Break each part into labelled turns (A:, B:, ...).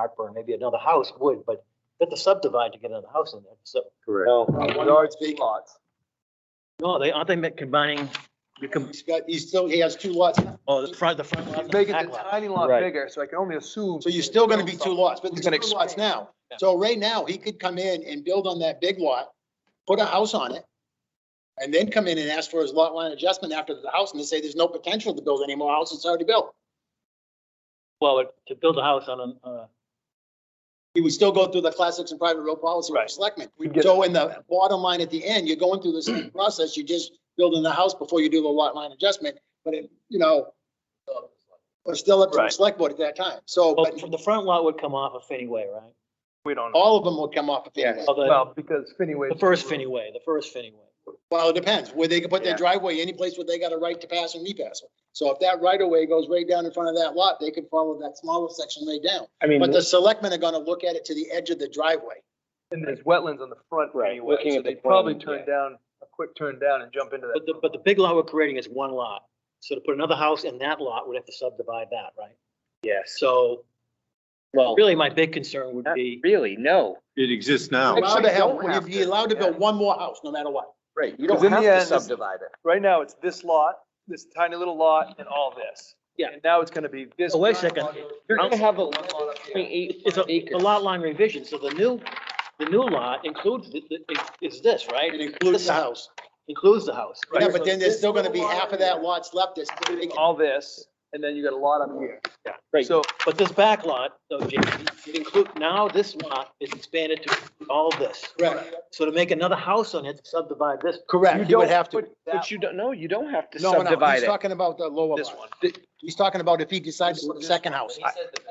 A: heartburn, maybe another house would, but you have to subdivide to get another house in there, so.
B: Correct.
C: No,
D: Yards, two lots.
A: No, they, aren't they combining, you can,
B: He's got, he's still, he has two lots.
A: oh, the front, the front lot. and the
D: Making
A: back
D: the
A: lot.
D: tiny lot
C: Right.
D: bigger, so I can only assume.
B: So you're still gonna be two lots, but
D: He's
B: there's
D: gonna
B: two lots
D: expand.
B: now. So right now, he could come in and build on that big lot, put a house on it, and then come in and ask for his lot line adjustment after the house, and they say there's no potential to build any more houses, it's already built.
A: Well, but to build a house on a, uh,
B: He would still go through the classics and private road policy with the selectmen.
D: We'd get-
B: So in the bottom line at the end, you're going through the same process, you're just building the house before you do the lot line adjustment, but it, you know, uh, but still up to the
A: Right.
B: select board at that time. So,
A: well,
B: but
A: the front lot would come off of Finney Way, right?
D: We don't. know.
B: all of them will come off of Fannie Mae.
A: Of the,
D: Well, because Finney Way.
A: the first Finney Way, the first Finney Way.
B: Well, it depends, where they can put their
D: Yeah.
B: driveway, any place where they got a right to pass and repass. it. So if that right of way goes right down in front of that lot, they could follow that smaller section right down.
C: I mean,
B: But the selectmen are gonna look at it to the edge of the driveway.
D: And there's wetlands on the front
C: Right,
D: anyway,
C: looking
D: so
C: at the
D: they probably
C: plan,
D: turn down, a quick turn down and jump into that.
A: But the, but the big lot we're creating is one lot. So to put another house in that lot, we'd have to subdivide that, right?
C: yes,
A: So
C: well,
A: really, my big concern would
C: not
A: be,
C: really, no.
E: It exists now.
D: Actually,
B: Allowed to have-
D: don't have
B: You're allowed to
D: yeah.
B: build one more house, no matter what.
C: Right, you
D: 'Cause in the end, it's-
C: it.
D: Right now, it's this lot, this tiny little lot and all this.
A: Yeah.
D: And now it's gonna be this.
A: Oh, wait a
D: giant
A: second.
D: lot here.
C: You're gonna have a
D: One lot up here.
A: it's a, it's a lot line revision. So the new, the new lot includes, the- the- is this, right?
B: It includes the house.
A: Includes the house.
B: Yeah, but then there's still gonna be half of that lots left that's still vacant.
D: All this, and then you got a lot up here.
A: Yeah.
C: Right.
D: So
A: But this back lot, though, Jason, it include, now this lot is expanded to all this.
B: Correct.
A: So to make another house on it, subdivide this.
B: Correct. He would have to.
C: But but you don't, no, you don't have to
B: No, no, no, he's
C: subdivide it.
B: talking about the lower
D: this
B: lot.
D: one.
B: He's talking about if he decides to put a second house.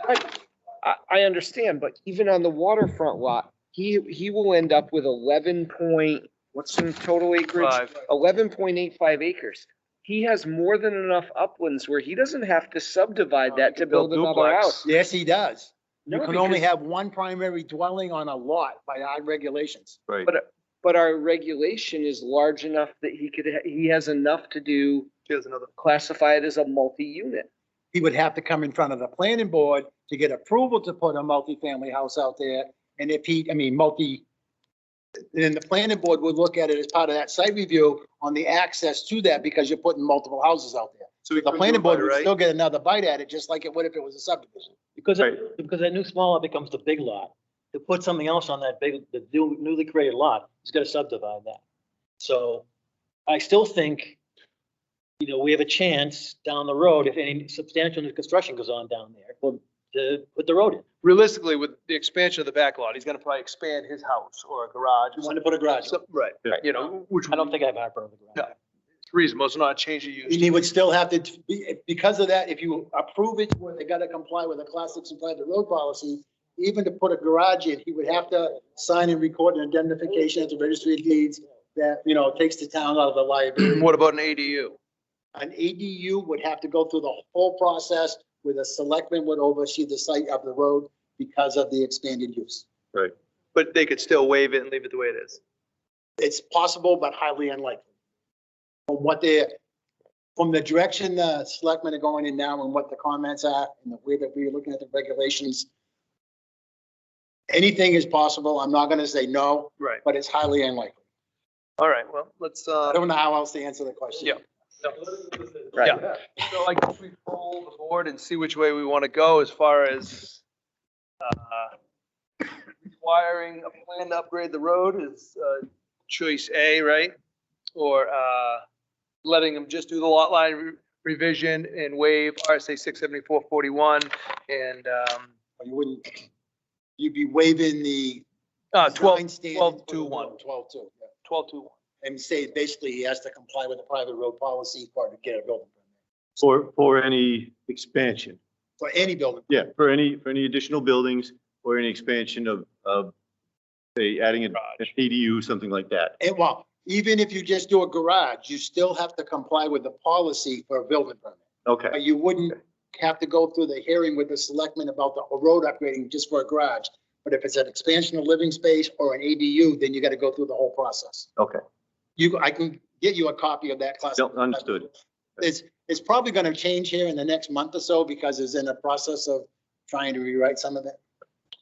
C: Right. I, I understand, but even on the waterfront lot, he, he will end up with eleven point, what's the total acreage?
D: Five.
C: Eleven point eight five acres. He has more than enough uplands where he doesn't have to subdivide
D: Uh,
C: that
D: you
C: to
D: can
C: build
D: build
C: another
D: duplex.
C: house.
B: Yes, he does. You
C: No,
B: can only
C: because-
B: have one primary dwelling on a lot by our regulations.
E: Right.
C: But our regulation is large enough that he could, ha- he has enough to do,
D: Here's another.
C: classify it as a multi-unit.
B: he would have to come in front of the planning board to get approval to put a multifamily house out there. And if he, I mean, multi, then the planning board would look at it as part of that site review on the access to that because you're putting multiple houses out there.
E: So we
B: The planning board would still get another bite at it, just like it would if it was a subdivision.
A: Because, it- because that new small lot becomes the big lot. To put something else on that big, the new- newly created lot, he's gonna subdivide that. So I still think, you know, we have a chance down the road, if any substantial new construction goes on down there, well, to put the road in.
D: Realistically, with the expansion of the back lot, he's gonna probably expand his house or a garage.
B: You want to put a garage.
D: Some- Right,
E: Right.
D: you know, which
A: I don't think I have heartburn on the ground.
D: No. is reasonable. It's not a change of
B: And
D: use.
B: he would still have to, be because of that, if you approve it, where they gotta comply with the classics and private road policy, even to put a garage in, he would have to sign and record an indemnification at the registry of deeds that, you know, takes the town out of the liability.
D: What about an ADU?
B: An ADU would have to go through the whole process where the selectman would oversee the site of the road because of the expanded use.
D: But they could still waive it and leave it the way it is.
B: It's possible, but highly unlikely. From what they, from the direction the selectmen are going in now and what the comments are and the way that we're looking at the regulations, anything is possible. I'm not gonna say no,
D: Right.
B: but it's highly unlikely.
D: All right, well, let's,
B: I
D: uh,
B: don't know how else to answer the question.
D: Yeah.
C: Right.
D: yeah. So I guess we poll the board and see which way we want to go as far as, uh, requiring a plan to upgrade the road is, uh, choice A, right? Or, uh, letting them just do the lot line re- revision and waive RSA six seventy-four forty-one and, um,
B: You wouldn't, you'd be waiving the.
D: uh, twelve,
B: design standard
D: twelve
B: for
D: two
B: the
D: one.
B: road, Twelve two, yeah.
D: twelve two one.
B: And say, basically, he has to comply with the private road policy part to get a building permit,
E: For, for any expansion.
B: for any building.
E: Yeah, for any, for any additional buildings or any expansion of, of, say, adding an an ADU, something like that.
B: And well, even if you just do a garage, you still have to comply with the policy for a building permit.
E: Okay,
B: But you wouldn't have to go through the hearing with the selectmen about the road upgrading just for a garage. But if it's an expansion of living space or an ADU, then you got to go through the whole process.
E: okay.
B: You, I can get you a copy of that class.
E: No, understood.
B: It's, it's probably going to change here in the next month or so because it's in the process of trying to rewrite some of it.